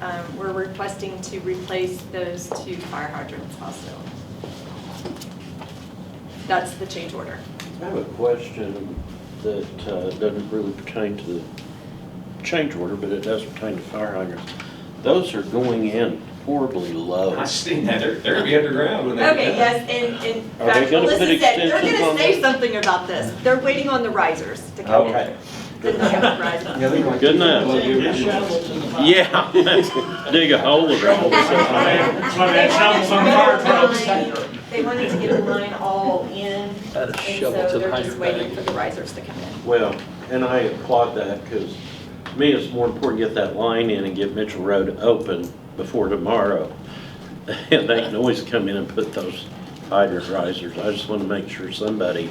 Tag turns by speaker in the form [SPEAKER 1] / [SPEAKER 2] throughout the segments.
[SPEAKER 1] um, we're requesting to replace those two fire hydrants also. That's the change order.
[SPEAKER 2] I have a question that uh, doesn't really pertain to the change order, but it does pertain to fire hydrants. Those are going in horribly low.
[SPEAKER 3] I've seen that, they're, they're gonna be underground when they.
[SPEAKER 1] Okay, yes, and, and in
[SPEAKER 2] Are they
[SPEAKER 1] fact,
[SPEAKER 2] gonna
[SPEAKER 1] Melissa
[SPEAKER 2] put
[SPEAKER 1] said, they're
[SPEAKER 2] extensions
[SPEAKER 1] gonna
[SPEAKER 2] on
[SPEAKER 1] say
[SPEAKER 2] them?
[SPEAKER 1] something about this. They're waiting on the risers to come in.
[SPEAKER 3] Okay.
[SPEAKER 1] Didn't have risers.
[SPEAKER 2] Good enough. Yeah. Dig a hole with it.
[SPEAKER 1] They wanted to
[SPEAKER 4] fire
[SPEAKER 1] get
[SPEAKER 4] trucks.
[SPEAKER 1] the line- They wanted to get the line all in, and
[SPEAKER 5] Add a
[SPEAKER 1] so
[SPEAKER 5] shovel to the
[SPEAKER 1] they're just
[SPEAKER 5] hydrant
[SPEAKER 1] waiting for
[SPEAKER 5] bag.
[SPEAKER 1] the risers to come in.
[SPEAKER 2] Well, and I applaud that because to me, it's more important to get that line in and get Mitchell Road open before tomorrow. And they can always come in and put those hydrant risers. I just want to make sure somebody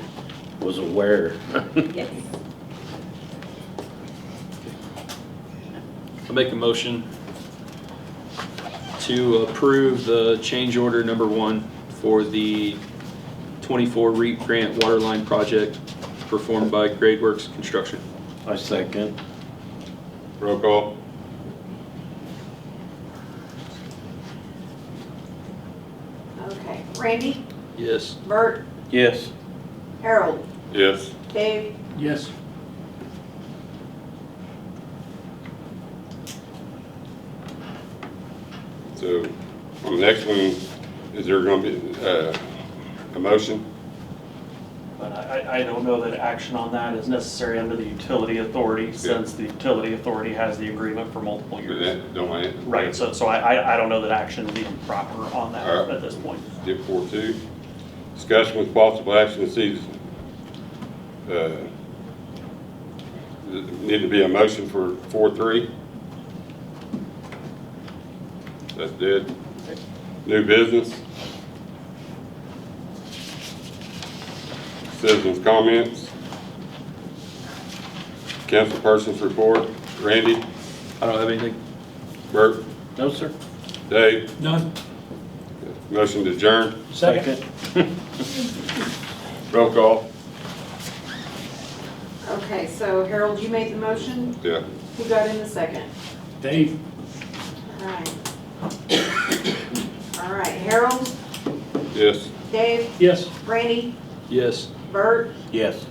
[SPEAKER 2] was aware.
[SPEAKER 1] Yes.
[SPEAKER 5] I make a motion to approve the change order number one for the 24 REAP grant water line project performed by Grade Works Construction.
[SPEAKER 2] I second.
[SPEAKER 3] Roll call.
[SPEAKER 4] Okay, Randy,
[SPEAKER 5] Yes.
[SPEAKER 4] Bert,
[SPEAKER 2] Yes.
[SPEAKER 4] Harold,
[SPEAKER 3] Yes.
[SPEAKER 4] Dave,
[SPEAKER 5] Yes.
[SPEAKER 6] So, on the next one, is there gonna be, uh, a motion?
[SPEAKER 7] But I, I- I don't know that action on that is necessary under the utility authority, since the utility authority has the agreement for multiple
[SPEAKER 6] Or
[SPEAKER 7] years.
[SPEAKER 6] that, don't I?
[SPEAKER 7] Right, so, so I, I- I don't know that action is even proper on that at this point.
[SPEAKER 6] Dip four two, discussion with possible action to see, uh, need to be a motion for four three. That's dead. New business. Citizens' comments. Councilperson's report. Randy,
[SPEAKER 5] I don't have anything.
[SPEAKER 6] Bert,
[SPEAKER 2] No, sir.
[SPEAKER 6] Dave,
[SPEAKER 5] None.
[SPEAKER 6] motion to adjourn.
[SPEAKER 2] Second.
[SPEAKER 6] Roll call.
[SPEAKER 4] okay, so Harold, you made the motion,
[SPEAKER 6] Yeah.
[SPEAKER 4] who got in the second?
[SPEAKER 5] Dave.
[SPEAKER 4] All right. All right, Harold,
[SPEAKER 6] Yes.
[SPEAKER 4] Dave,
[SPEAKER 5] Yes.
[SPEAKER 4] Randy,
[SPEAKER 5] Yes.
[SPEAKER 4] Bert,
[SPEAKER 2] Yes.